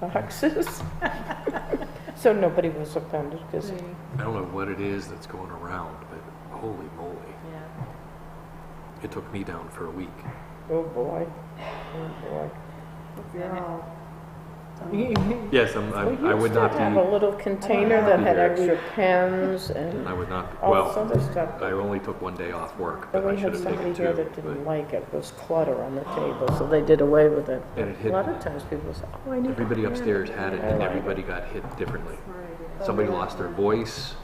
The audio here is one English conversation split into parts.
boxes. So nobody was offended, because I don't know what it is that's going around, but holy moly. It took me down for a week. Oh, boy. Oh, boy. You're all- Yes, I'm, We I'm- I would used to not have a be, little container that had Yeah. extra pens and I would not, all this well, other stuff. I only took one day off work, But but I we should had have somebody taken here that didn't two. like it, It was clutter on the table, so they did away with it. but- And it A hit, lot of times people say, oh, I need. everybody upstairs had it, I and like Oh, it. everybody got hit differently. Right. Somebody lost their voice,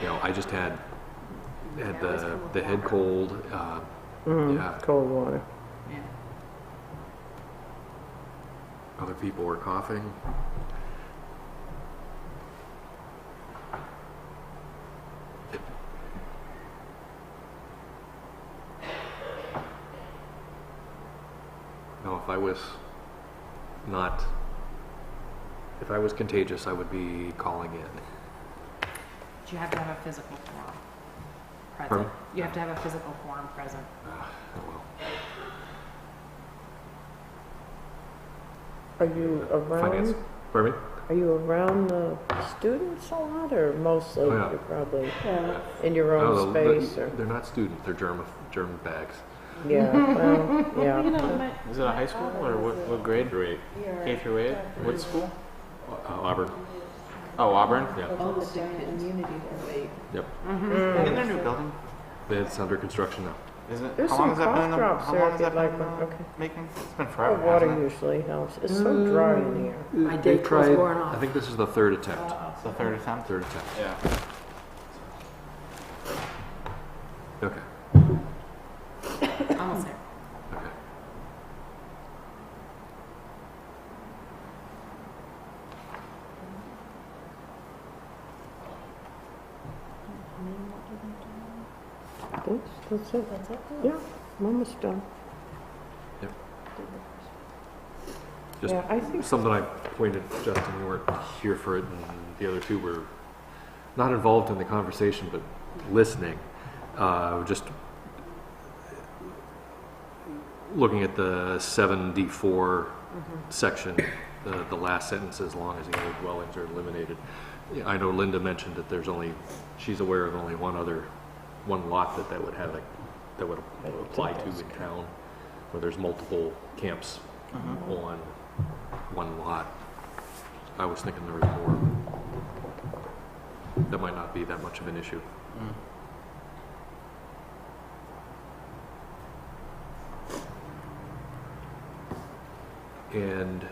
you know, I just had, had the, the head cold, uh, Yeah. Mm, cold water. other people were coughing. No, if I was not, if I was contagious, I would be calling in. You have to have a physical form Pardon? present. You have to have a physical form present. Oh, well. Are you Finance, around, pardon me? are you around the students a lot, or mostly Oh, yeah. you're probably Yeah. in your Oh, own the- space, or? They're not students, they're germ, germ bags. Yeah, well, You yeah. know, my- Is it a high school or what, what grade? Through eight. your- K through eight? What school? Uh, Auburn, Oh, Auburn? yeah. Oh, the giant immunity debate. Isn't there a new building? It's under construction now. Isn't it? There's how long some has that been? cough in the- drops how there long if has you'd that like been? one, uh, okay. Making? It's been Oh, forever. water hasn't it? usually helps, it's so dry in here. My date was worn off. I think this is the third attempt. It's the third attempt. Third attempt. Yeah. Okay. Almost there. Okay. That's, that's it. That's it? Yeah, I'm almost done. Just- Yeah, I think, Something I pointed, Justin, you weren't here for it, and the other two were not involved in the conversation, but listening. Uh, just looking at the seven D four section, the, the last sentence, as long as the other dwellings are eliminated. Yeah, I know Linda mentioned that there's only, she's aware of only one other, one lot that that would have, a- that would apply to in town, where there's multiple camps Mm-hmm. on one lot. I was thinking there was more. That might not be that much of an issue. Mm. And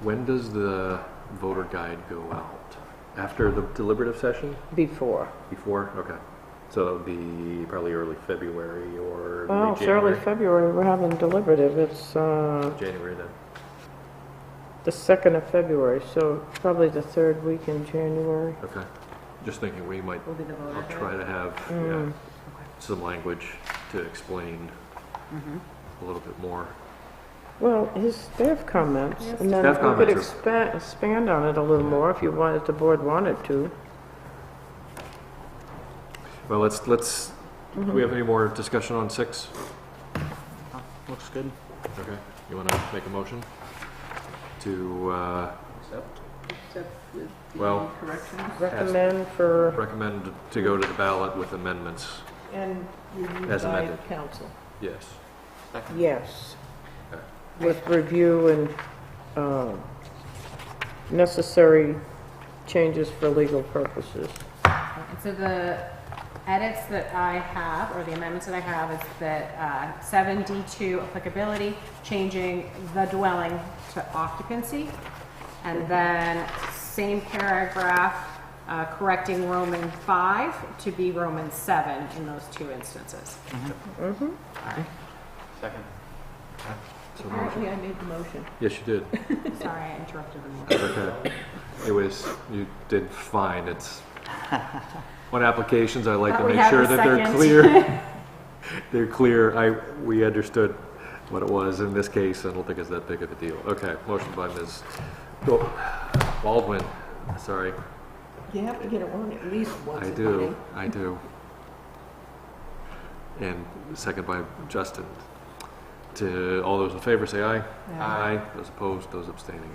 when does the voter guide go out? After the deliberative session? before. Before? Okay. So that would be probably early February or Well, late Oh, it's early January? February, we're having deliberative, it's, uh, January then. the second of February, so probably the third week in January. Okay. Just thinking we might, Will be the voter. I'll try to have yeah, Mm. some language to explain Mhm. a little bit more. Well, his staff comments, and then Staff we could comments expand, expand on it a little more if you wanted, the board wanted to. Well, let's, let's, do we have any more discussion on six? Oh, looks good. Okay, you want to make a motion to, uh, Except. well, Recommend for, recommend to go to the ballot with amendments? and As by amended. council. Yes. Second. Yes. Okay. With review and uh, necessary changes for legal purposes. And so the edits that I have, or the amendments that I have, is that uh, seven D two applicability, changing the dwelling to occupancy. And then same paragraph, uh, correcting Roman five to be Roman seven in those two instances. Second. So motion. I made the motion. Yes, you did. Sorry, I interrupted the motion. Okay. It was, you did fine. It's, on applications, I like to Thought we make had sure the that they're second. clear. They're clear. I, we understood what it was in this case. I don't think it's that big of a deal. Okay, motion by Ms. Go- Baldwin, sorry. You have to get it on at least once. I do, I do. And second by Justin. To all those in favor, say aye. Aye. Those opposed, those abstaining.